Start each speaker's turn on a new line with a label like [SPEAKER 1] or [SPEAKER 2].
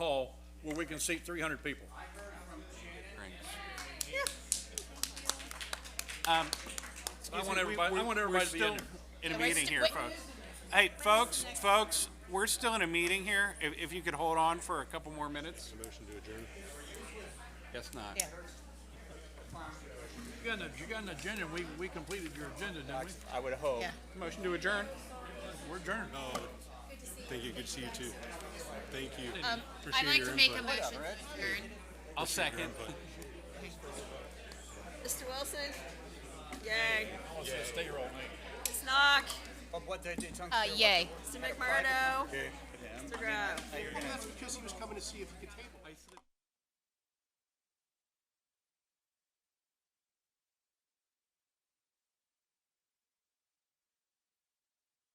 [SPEAKER 1] where we can seat three hundred people.
[SPEAKER 2] Um,
[SPEAKER 1] I want everybody, I want everybody to be in there.
[SPEAKER 2] in a
[SPEAKER 3] we're
[SPEAKER 2] meeting
[SPEAKER 3] sti-
[SPEAKER 2] here,
[SPEAKER 3] wait.
[SPEAKER 2] folks. Hey, folks, folks, we're still in a meeting here. If, if you could hold on for a couple more minutes. motion to adjourn. Guess not.
[SPEAKER 3] Yeah.
[SPEAKER 1] You got an, you got an agenda, we, we completed your agenda, didn't we?
[SPEAKER 4] I would hope.
[SPEAKER 3] Yeah.
[SPEAKER 2] Motion to adjourn.
[SPEAKER 1] We're adjourned.
[SPEAKER 5] Thank you. Good to see you too. Thank you.
[SPEAKER 3] Um, I'd
[SPEAKER 5] Appreciate
[SPEAKER 3] like
[SPEAKER 5] your
[SPEAKER 3] to make a
[SPEAKER 5] input.
[SPEAKER 3] motion to adjourn.
[SPEAKER 2] I'll second.
[SPEAKER 6] Mr. Wilson? Yay.
[SPEAKER 1] Stay your old name.
[SPEAKER 6] Ms. Knock?
[SPEAKER 4] Of what they did, Tunk-
[SPEAKER 3] Uh, yay.
[SPEAKER 6] Mr. McMurdo? Mr. Grove?
[SPEAKER 5] Well, that's because he was coming to see if he could table.